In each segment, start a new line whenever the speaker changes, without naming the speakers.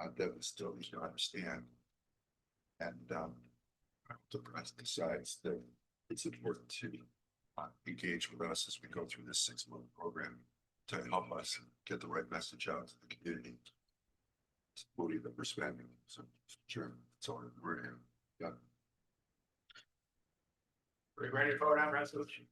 uh, that we still need to understand. And, um, I hope the press decides that it's important to uh, engage with us as we go through this six-month program to help us get the right message out to the community. It's the money that we're spending, so, sure, it's all we're in.
Are you ready to vote on resolution?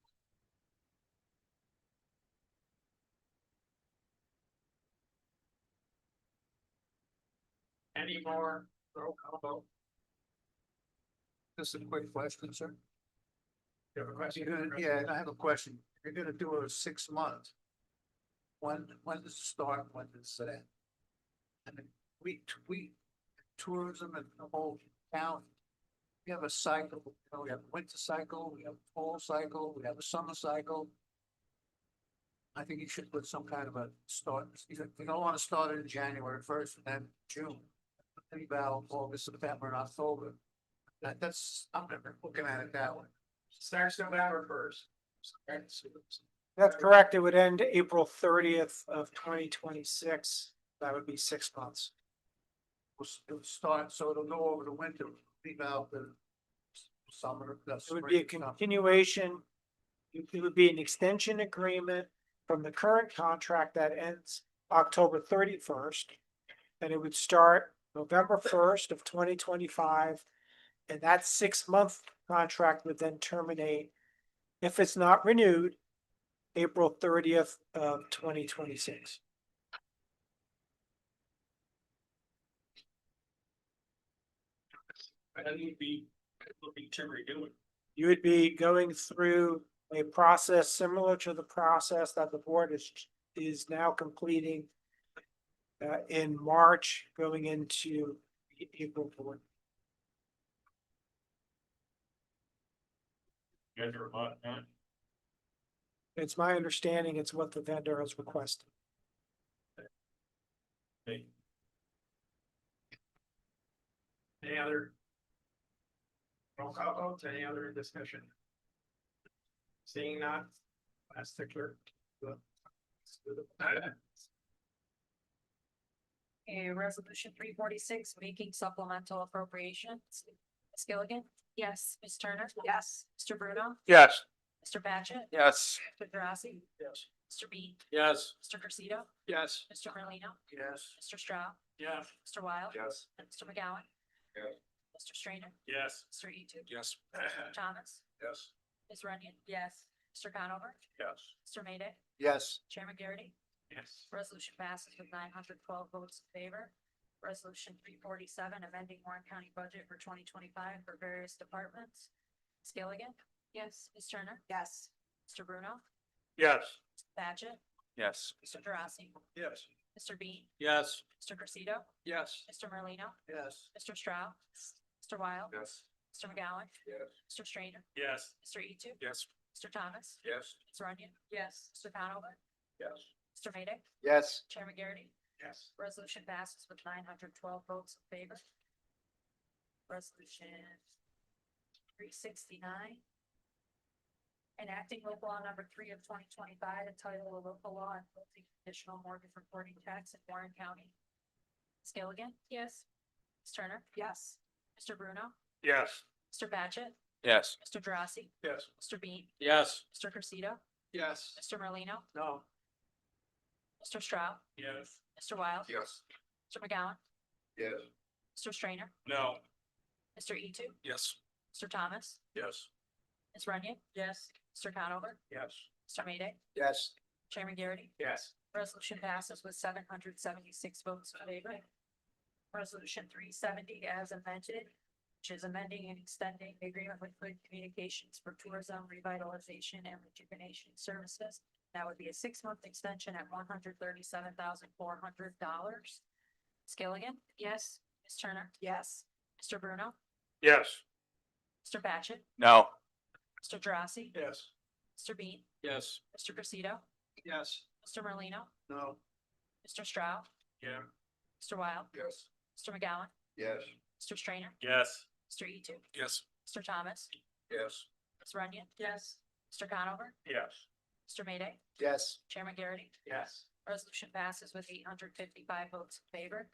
Any more roll call vote?
Just a quick question, sir.
You have a
You're
question?
gonna, yeah, I have a question. You're gonna do a six month. When, when does it start, when does it end? I mean, we, we, tourism and the whole town. We have a cycle, you know, we have a winter cycle, we have a fall cycle, we have a summer cycle. I think you should put some kind of a start, you don't- you don't wanna start it in January first and then June. Think about August, September, and October. That, that's, I'm looking at it that way.
Starts November first.
That's correct. It would end April thirtieth of twenty twenty-six. That would be six months.
will, s- it'll start, so it'll go over the winter, leave out the s- summer, the
It
spring.
would be a
summer.
continuation. It it would be an extension agreement from the current contract that ends October thirty-first. And it would start November first of twenty twenty-five. And that six-month contract would then terminate if it's not renewed, April thirtieth of twenty twenty-six.
And we'd be, we'll be to redo it.
you would be going through a process similar to the process that the board is, is now completing uh, in March, going into A- April board.
You guys are a lot, huh?
It's my understanding it's what the vendor has requested.
Hey. Any other? Roll call votes, any other discussion? Seeing none, last tickler.
Okay, resolution three forty-six, making supplemental appropriations. Ms. Gilligan? Yes. Ms. Turner? Yes. Mr. Bruno?
Yes.
Mr. Patchit?
Yes.
Mr. Drossy?
Yes.
Mr. Bean?
Yes.
Mr. Garcia?
Yes.
Mr. Merlino?
Yes,
Mr. Straugh?
Yes.
Mr. Wild?
Yes.
and Mr. McGowan?
Yes.
Mr. Strainer?
Yes.
Mr. Etu?
Yes.
Thomas?
Yes.
Ms. Runyon? Yes. Mr. Conover?
Yes.
Mr. Mayday?
Yes.
Chairman Garrity?
Yes.
Resolution passes with nine hundred twelve votes in favor. Resolution three forty-seven, amending Warren County budget for twenty twenty-five for various departments. Ms. Gilligan? Yes. Ms. Turner? Yes. Mr. Bruno?
Yes.
Badgett?
Yes.
Mr. Drossy?
Yes.
Mr. Bean?
Yes.
Mr. Crusito?
Yes.
Mr. Merlino?
yes,
Mr. Stroud? Mr. Wild?
Yes.
Mr. McGowan?
Yes.
Mr. Strainer?
Yes.
Mr. Etu?
Yes.
Mr. Thomas?
Yes.
Ms. Runyon? Yes. Mr. Conover?
Yes.
Mr. Mayday?
Yes.
Chairman Garrity?
Yes.
Resolution passes with nine hundred twelve votes in favor. Resolution three sixty-nine. Enacting local law number three of twenty twenty-five, entitled a local law imposing additional mortgage reporting tax in Warren County. Ms. Gilligan? Yes. Ms. Turner? Yes. Mr. Bruno?
Yes.
Mr. Patchit?
Yes.
Mr. Drossy?
Yes.
Mr. Bean?
Yes.
Mr. Crusito?
Yes.
Mr. Merlino?
no,
Mr. Straugh?
Yes.
Mr. Wild?
Yes.
Mr. McGowan?
Yes.
Mr. Strainer?
No.
Mr. E two?
Yes.
Mr. Thomas?
Yes.
Ms. Runyon? Yes. Mr. Conover?
Yes.
Mr. Mayday?
Yes.
Chairman Garrity?
Yes.
Resolution passes with seven hundred seventy-six votes in favor. Resolution three seventy as amended, which is amending and extending the agreement with Hood Communications for Tourism Revitalization and Rejuvenation Services. That would be a six-month extension at one hundred thirty-seven thousand four hundred dollars. Ms. Gilligan? Yes. Ms. Turner? Yes. Mr. Bruno?
Yes.
Mr. Patchit?
No.
Mr. Drossy?
Yes.
Mr. Bean?
Yes.
Mr. Crusito?
Yes.
Mr. Merlino?
no,
Mr. Stroud?
Yeah.
Mr. Wild?
Yes.
Mr. McGowan?
Yes.
Mr. Strainer?
Yes.
Mr. E two?
Yes.
Mr. Thomas?
Yes.
Ms. Runyon? Yes. Mr. Conover?
Yes.
Mr. Mayday?
Yes.
Chairman Garrity?
Yes.
Resolution passes with eight hundred fifty-five votes in favor.